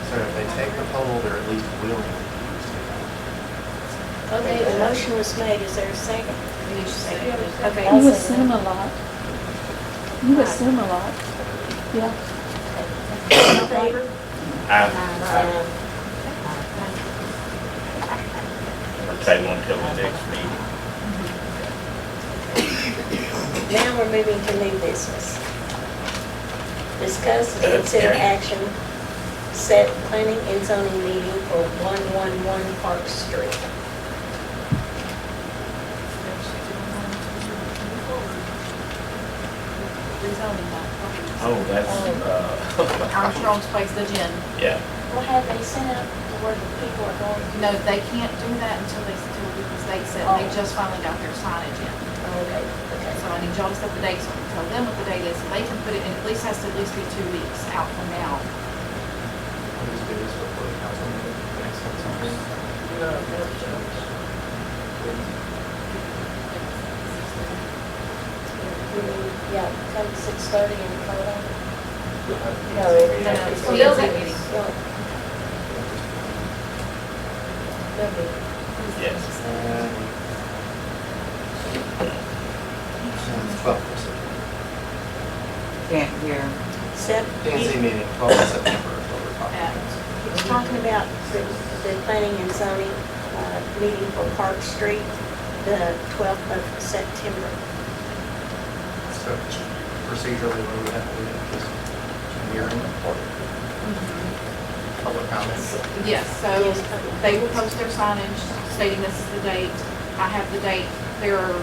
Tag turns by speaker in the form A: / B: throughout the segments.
A: take the poll, they're at least willing to use it.
B: Okay, the motion was made, is there a second? Okay.
C: You assume a lot. You assume a lot. Yeah,
B: All in favor?
D: I'll table until the next meeting.
B: Now we're moving to new business. Discuss and consider action, set planning and zoning meeting for 111 Park Street.
E: Rezoning that.
D: Oh, that's, uh,
E: Armstrong's Place, the gym.
D: yeah,
B: Well, have they sent out where the people are going?
E: No, they can't do that until they, until the state said, they just finally got their signage in.
B: Okay, okay.
E: So I need y'all to set the dates, so I can tell them what the date is, and they can put it in, at least has to at least be two weeks out from now.
A: Let me just do this before the council meeting. Next time.
B: We need, yeah, come 6:30 and call them.
A: No,
E: No, no, it's
B: Well,
E: the exec meeting.
B: no, they'll be-
D: yes.
A: Twelve percent.
F: Can't hear.
B: Sep,
A: P&Z
B: you-
A: meeting, twelve September, over five.
B: you're talking about the, the planning and zoning, uh, meeting for Park Street, the twelfth of September.
A: So procedurally, what do we have to do? Just hearing or public comments?
E: Yes, so
B: Yes, public.
E: they will post their signage stating this is the date. I have the date. There are,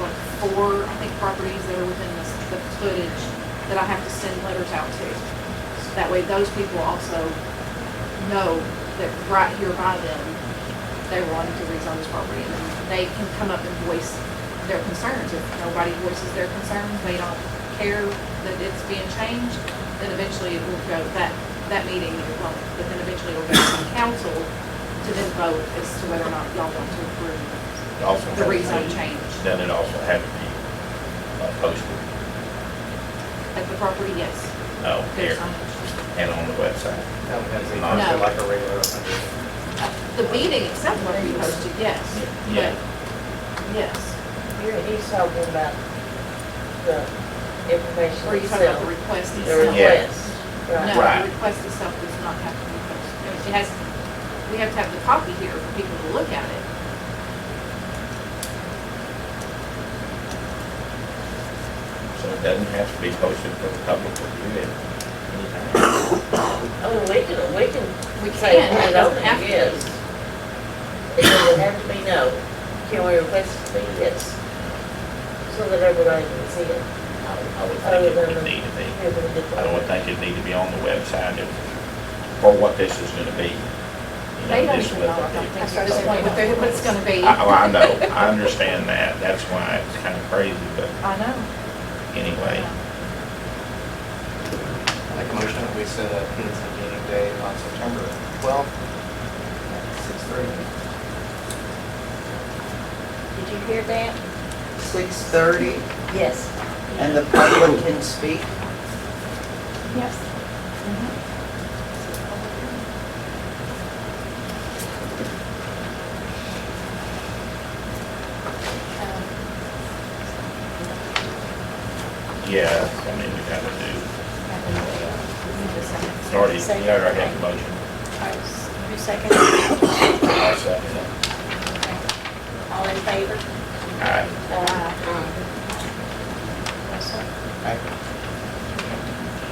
E: what, four, I think, properties that are within this, the footage that I have to send letters out to. So That way those people also know that right here by them, they're wanting to rezone this property. And then they can come up and voice their concerns. If nobody voices their concerns, they don't care that it's being changed, then eventually it will go, that, that meeting, it won't, but then eventually it'll go to the council to then vote as to whether or not y'all want to approve
D: It also had
E: the
D: to
E: rezone
D: be-
E: change
D: Then it also had to be uh, posted,
E: at the property, yes.
D: oh, here,
E: there's signage.
D: and on the website.
A: That would have to be
D: No.
A: posted like a regular open meeting.
E: The meeting itself will be posted, yes,
D: Yeah.
E: but, yes.
F: You're, he's talking about the information
E: Or you talk about
F: itself,
E: the request
F: the
E: itself.
D: Yeah.
F: request. Right.
E: No,
D: Right.
E: the request itself does not have to be posted. It has, we have to have the copy here for people to look at it.
D: So it doesn't have to be posted for the public to view it. anytime.
F: I mean, we can, we can
E: We
F: say
E: can,
F: when
E: it
F: it
E: doesn't have
F: open
E: to.
F: is. It doesn't have to be no. Can we request it to be yes? So that everybody can see it.
D: I would- I would think it would need to be. I don't think it'd need to be on the website if, for what this is gonna be. You
E: They don't
D: this
E: even
D: will
E: know, I
D: be-
E: don't think, at this point, what they're- what it's gonna be.
D: I, oh, I know, I understand that, that's why it's kind of crazy, but
E: I know.
D: anyway,
A: Make a motion that we set a P and Z meeting day on September 12th at 6:30.
B: Did you hear that?
G: Six thirty,
B: Yes.
G: and the public can speak.
C: yes.
D: yeah, I mean, you gotta do, it's
E: Sorry.
D: already, you already have the motion.
B: Who seconded?
D: I'll second it.
B: All in favor? Uh,
D: Aye.
E: Mm.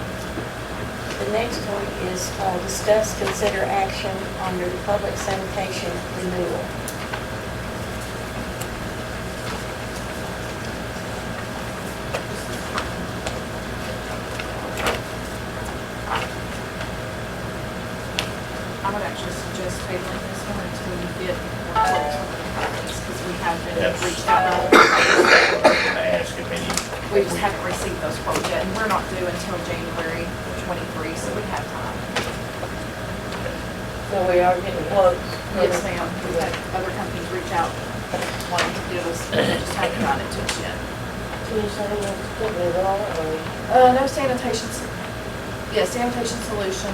B: The next one is uh, discuss, consider action on your public sanitation renewal.
E: I would actually suggest tabling this one until you get more results from the properties, because we have been
D: Yes.
E: reached out on.
D: That's what I was gonna ask if any.
E: We just haven't received those quotes yet, and we're not due until January twenty-three, so we have time.
F: So we are getting quotes.
E: Yes, ma'am, we've had other companies reach out, wanting to give us, they just haven't gotten it to us yet.
F: Can you say what's good with all of them?
E: Uh, no sanitation, s- yeah, sanitation solution